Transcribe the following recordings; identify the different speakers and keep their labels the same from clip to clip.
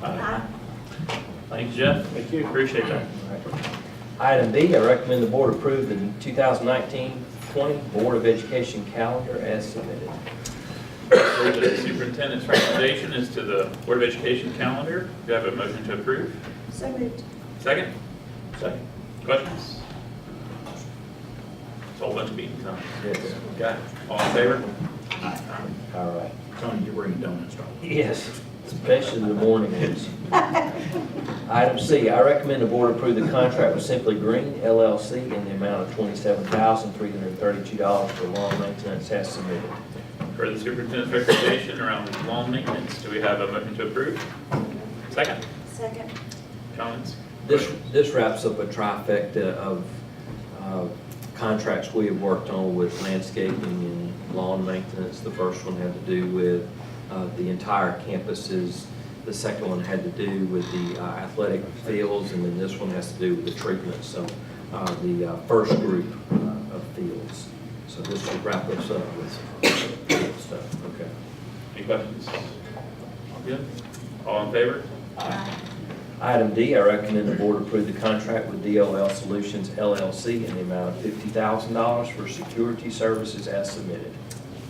Speaker 1: Thanks, Uh-huh. Jeff.
Speaker 2: Thank you.
Speaker 1: Appreciate that.
Speaker 3: Item B, I recommend the board approve the 2019-20 Board of Education calendar as submitted.
Speaker 1: For The superintendent's recommendation is to the Board of Education calendar. Do I have a motion to approve?
Speaker 4: So moved.
Speaker 1: Second? Second. Questions? It's a whole bunch of meetings, huh?
Speaker 3: Yes.
Speaker 1: Got it. All in favor?
Speaker 3: All right.
Speaker 5: Tony, you're bringing donuts, right?
Speaker 3: Yes, especially the morning ones. Item C, I recommend the board approve the contract with Simply Green LLC in the amount of $27,332 for lawn maintenance as submitted.
Speaker 1: For the superintendent's recommendation around lawn maintenance, do we have a motion to approve? Second?
Speaker 4: Second.
Speaker 1: Comments?
Speaker 3: This, this wraps up a trifecta of uh, contracts we have worked on with landscaping and lawn maintenance. The first one had to do with uh, the entire campuses. The second one had to do with the uh, athletic fields, and then this one has to do with the treatment, so uh, the uh, first group uh, of fields. So this will wrap us up with field stuff, okay?
Speaker 1: Any questions? Good? All in favor?
Speaker 3: Item D, I recommend the board approve the contract with DOL Solutions LLC in the amount of fifty thousand dollars for security services as submitted.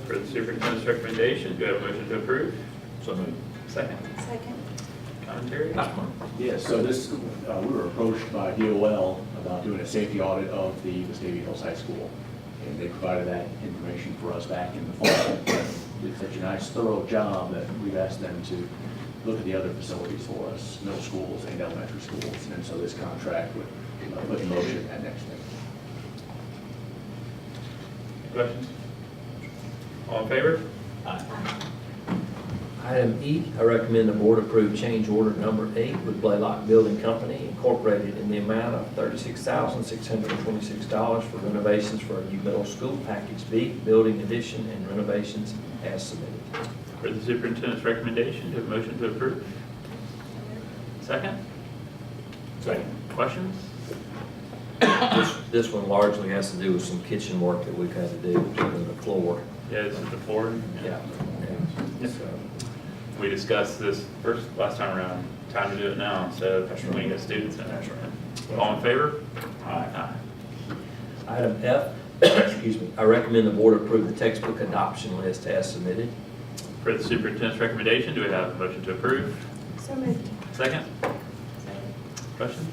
Speaker 1: For the superintendent's recommendation, do I have a motion to approve?
Speaker 5: So moved.
Speaker 1: Second?
Speaker 4: Second.
Speaker 1: Commentary?
Speaker 2: Yes, so this, uh, we were approached by DOL about doing a safety audit of the Vestavia Hills High School. And they provided that information for us back in the fall. Did such a nice thorough job that we've asked them to look at the other facilities for us, middle schools and elementary schools. And so this contract would uh, put in motion that next thing.
Speaker 1: Any questions? All in favor?
Speaker 3: Item E, I recommend the board approve change order number eight with Blaylock Building Company Incorporated in the amount of thirty-six thousand six hundred and twenty-six dollars for renovations for a new middle school, package B, building addition and renovations as submitted.
Speaker 1: For the superintendent's recommendation, do I have a motion to approve? Second? Second. Questions?
Speaker 3: This, this one largely has to do with some kitchen work that we've had to do on the floor.
Speaker 1: Yeah, this is the board.
Speaker 3: Yeah.
Speaker 1: Yes, We discussed this first, last time around, time to do it now, so
Speaker 3: That's
Speaker 1: we
Speaker 3: right.
Speaker 1: can get students in.
Speaker 3: That's right.
Speaker 1: All in favor? Aye.
Speaker 3: Item F, excuse me, I recommend the board approve the textbook adoption list as submitted.
Speaker 1: For the superintendent's recommendation, do we have a motion to approve?
Speaker 4: So moved.
Speaker 1: Second? Questions?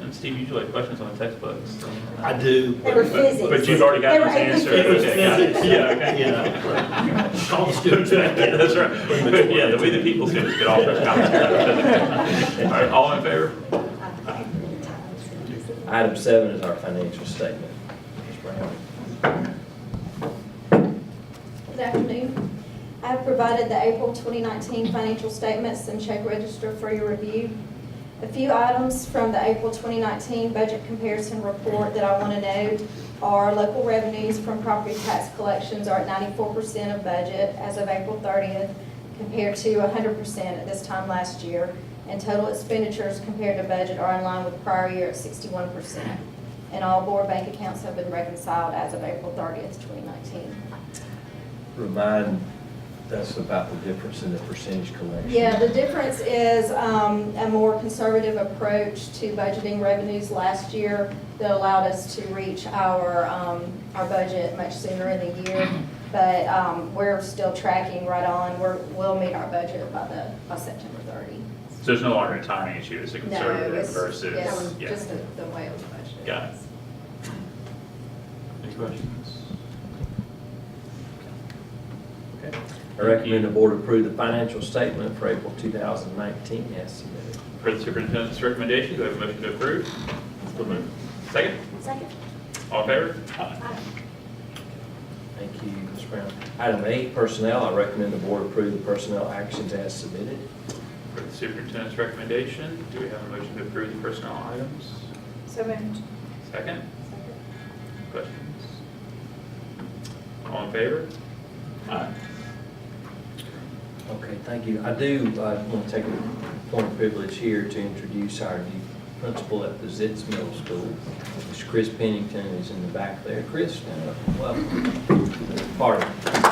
Speaker 1: And Steve, you usually have questions on the textbooks.
Speaker 5: I do.
Speaker 4: They were
Speaker 1: But-
Speaker 4: physics.
Speaker 1: But you've already
Speaker 4: They
Speaker 1: got
Speaker 4: were
Speaker 1: this answer.
Speaker 4: physics.
Speaker 5: It was
Speaker 1: Okay, got it.
Speaker 5: physics.
Speaker 1: Yeah, okay.
Speaker 5: Yeah. Call the students.
Speaker 1: Yeah, That's right. But, Yeah, the way the people students get off their comments. All right, all in favor?
Speaker 3: Item seven is our financial statement. Ms. Brown.
Speaker 6: Good afternoon. I have provided the April 2019 financial statements and check register for your review. A few items from the April 2019 budget comparison report that I want to note are local revenues from property tax collections are at 94% of budget as of April 30th compared to 100% at this time last year, and total expenditures compared to budget are in line with prior year at 61%. And all board bank accounts have been reconciled as of April 30th, 2019.
Speaker 3: Remind us about the difference in the percentage collection.
Speaker 6: Yeah, the difference is um, a more conservative approach to budgeting revenues last year that allowed us to reach our, um, our budget much sooner in the year. But um, we're still tracking right on, we're, we'll meet our budget by the, by September 30.
Speaker 1: So there's no longer a timing issue, it's a
Speaker 6: No,
Speaker 1: conservative
Speaker 6: it's
Speaker 1: versus,
Speaker 6: yes,
Speaker 1: yeah.
Speaker 6: Just the- the way it was budgeted.
Speaker 1: Got it. Any questions? Okay.
Speaker 3: I recommend the board approve the financial statement for April 2019 as submitted.
Speaker 1: For the superintendent's recommendation, do I have a motion to approve? So moved. Second,
Speaker 4: Second.
Speaker 1: all in favor?
Speaker 3: Thank you, Ms. Brown. Item eight, personnel, I recommend the board approve the personnel actions as submitted.
Speaker 1: For the superintendent's recommendation, do we have a motion to approve the personnel items?
Speaker 4: So moved.
Speaker 1: Second, questions? All in favor? Aye.
Speaker 3: Okay, thank you. I do, uh want to take a point of privilege here to introduce our new principal at the Zitz Middle School. Mr. Chris Pennington is in the back there. Chris, stand up. welcome. Pardon.